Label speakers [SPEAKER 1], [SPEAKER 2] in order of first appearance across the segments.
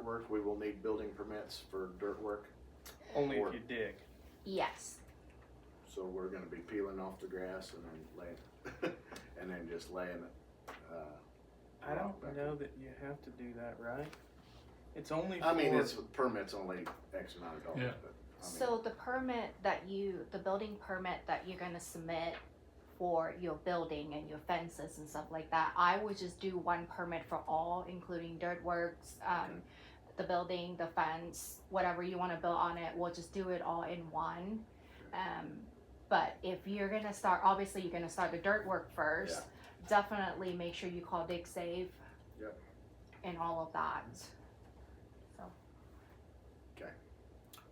[SPEAKER 1] work, we will need building permits for dirt work.
[SPEAKER 2] Only
[SPEAKER 1] Or-
[SPEAKER 2] if you dig.
[SPEAKER 3] Yes,
[SPEAKER 1] So we're gonna be peeling off the grass and then laying, and then just laying it. uh,
[SPEAKER 2] I don't
[SPEAKER 1] Back
[SPEAKER 2] know
[SPEAKER 1] up.
[SPEAKER 2] that you have to do that, right? It's only for.
[SPEAKER 1] I mean, it's permits only X amount of dollars,
[SPEAKER 4] Yeah.
[SPEAKER 1] but. I mean-
[SPEAKER 3] so the permit that you, the building permit that you're gonna submit for your building and your fences and stuff like that, I would just do one permit for all, including dirt works,
[SPEAKER 1] Okay.
[SPEAKER 3] um, the building, the fence, whatever you wanna build on it, we'll just do it all in one. Um, but if you're gonna start, obviously you're gonna start the dirt work first, definitely make sure you call Dig Save.
[SPEAKER 1] Yep.
[SPEAKER 3] And all of that, so.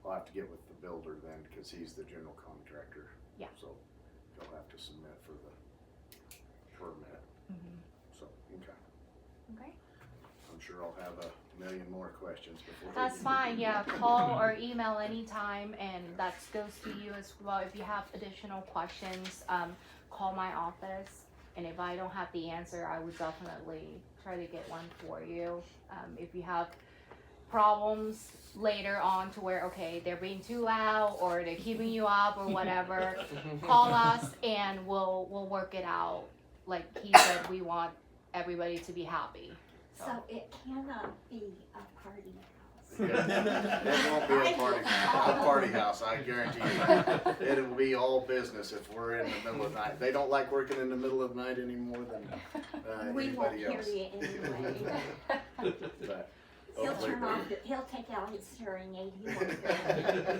[SPEAKER 1] I'll have to get with the builder then, cause he's the general contractor.
[SPEAKER 3] Yeah.
[SPEAKER 1] So he'll have to submit for the permit, so, okay.
[SPEAKER 3] Mm-hmm. Okay.
[SPEAKER 1] I'm sure I'll have a million more questions before.
[SPEAKER 3] That's fine, yeah, call or email anytime, and that goes to you as well, if you have additional questions, um, call my office. And if I don't have the answer, I would definitely try to get one for you, um, if you have problems later on to where, okay, they're being too loud, or they're keeping you up, or whatever, call us and we'll, we'll work it out. Like he said, we want everybody to be happy,
[SPEAKER 5] So it cannot be a party house.
[SPEAKER 1] Yeah. It won't be a party, a party house, I guarantee you. It will be all business if we're in the middle of the night. They don't like working in the middle of the night any more than, uh,
[SPEAKER 5] We won't
[SPEAKER 1] anybody
[SPEAKER 5] hear
[SPEAKER 1] else.
[SPEAKER 5] you anyway.
[SPEAKER 1] But
[SPEAKER 5] He'll
[SPEAKER 1] hopefully
[SPEAKER 5] turn
[SPEAKER 1] they-
[SPEAKER 5] off, the- he'll take out his hearing aid, he won't.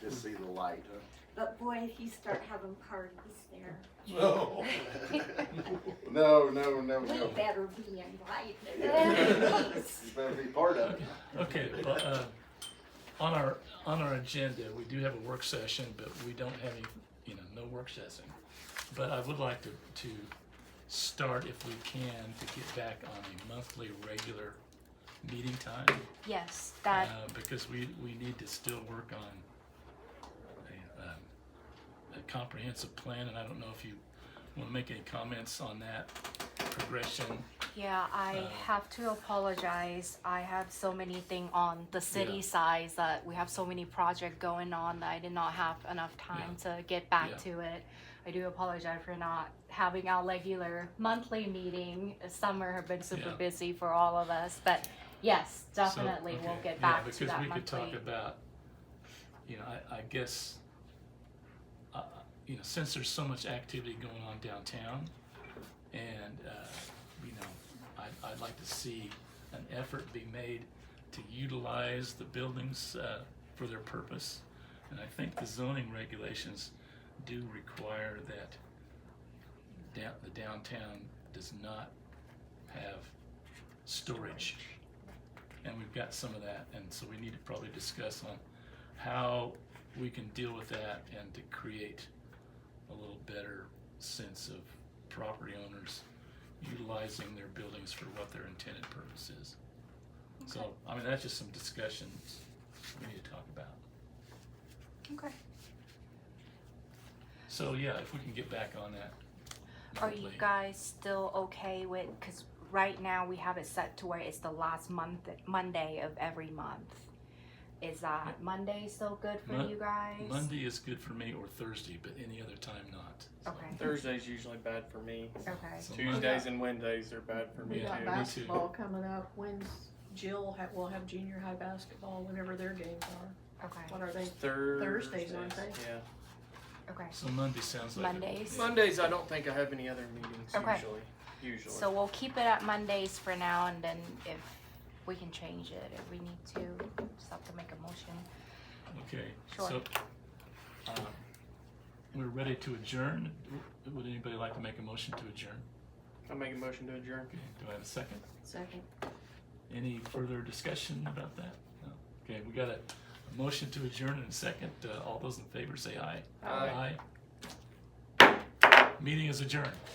[SPEAKER 1] Just see the light,
[SPEAKER 5] But boy, if you start having parties there,
[SPEAKER 4] No.
[SPEAKER 1] huh? No, no, no,
[SPEAKER 5] we
[SPEAKER 1] no.
[SPEAKER 5] better be invited.
[SPEAKER 1] You better be part of it.
[SPEAKER 4] Okay, but, uh, on our, on our agenda, we do have a work session, but we don't have any, you know, no work session. But I would like to, to start if we can to get back on a monthly regular meeting time.
[SPEAKER 3] yes, that,
[SPEAKER 4] uh, Because we, we need to still work on a, um, a comprehensive plan, and I don't know if you wanna make any comments on that progression.
[SPEAKER 3] Yeah, I
[SPEAKER 4] Uh,
[SPEAKER 3] have to apologize. I have so many thing on the city
[SPEAKER 4] Yeah.
[SPEAKER 3] size that we have so many project going on that I did not have enough time to get back
[SPEAKER 4] Yeah.
[SPEAKER 3] to it. I do apologize for not having our regular monthly meeting. Summer have been super
[SPEAKER 4] Yeah.
[SPEAKER 3] busy for all of us, but yes,
[SPEAKER 4] So,
[SPEAKER 3] definitely we'll
[SPEAKER 4] okay,
[SPEAKER 3] get
[SPEAKER 4] yeah,
[SPEAKER 3] back to that monthly.
[SPEAKER 4] Because we could talk about, you know, I, I guess, uh, you know, since there's so much activity going on downtown, and, uh, you know, I'd, I'd like to see an effort be made to utilize the buildings, uh, for their purpose. And I think the zoning regulations do require that down, the downtown does not have storage. And we've got some of that, and so we need to probably discuss on how we can deal with that and to create a little better sense of property owners utilizing their buildings for what their intended purpose is. So, I mean, that's just some discussions we need to talk about.
[SPEAKER 3] Okay.
[SPEAKER 4] So, yeah, if we can get back on that.
[SPEAKER 3] Are you
[SPEAKER 4] monthly.
[SPEAKER 3] guys still okay with, because right now we have it set to where it's the last month, Monday of every month. Is that Monday still good for
[SPEAKER 4] Mon-
[SPEAKER 3] you guys?
[SPEAKER 4] Monday is good for me or Thursday, but any other time not. So-
[SPEAKER 3] Okay.
[SPEAKER 2] Thursday's usually bad for me.
[SPEAKER 3] Okay.
[SPEAKER 4] so Monday-
[SPEAKER 2] Tuesdays and Wednesdays are bad for me
[SPEAKER 6] We got
[SPEAKER 4] too.
[SPEAKER 2] too.
[SPEAKER 4] back-
[SPEAKER 6] basketball coming up, when's Jill, ha- will have junior high basketball, whenever their games are,
[SPEAKER 3] Okay.
[SPEAKER 6] what are they?
[SPEAKER 2] Thursdays,
[SPEAKER 6] Thursdays, aren't they?
[SPEAKER 2] Yeah.
[SPEAKER 3] Okay.
[SPEAKER 4] So Monday sounds like. a-
[SPEAKER 3] Mondays?
[SPEAKER 4] yeah.
[SPEAKER 2] Mondays, I don't think I have any other meetings
[SPEAKER 3] Okay.
[SPEAKER 2] usually. Usually.
[SPEAKER 3] So we'll keep it at Mondays for now, and then if we can change it, if we need to, just have to make a motion.
[SPEAKER 4] Okay,
[SPEAKER 3] Sure.
[SPEAKER 4] so, um, we're ready to adjourn. W- Would anybody like to make a motion to adjourn?
[SPEAKER 2] I make a motion to adjourn.
[SPEAKER 4] Okay, do I have a second?
[SPEAKER 6] Second.
[SPEAKER 4] Any further discussion about that? No? Okay, we got a, a motion to adjourn and a second. Uh, all those in favor say aye.
[SPEAKER 2] Aye.
[SPEAKER 4] Aye. Meeting is adjourned.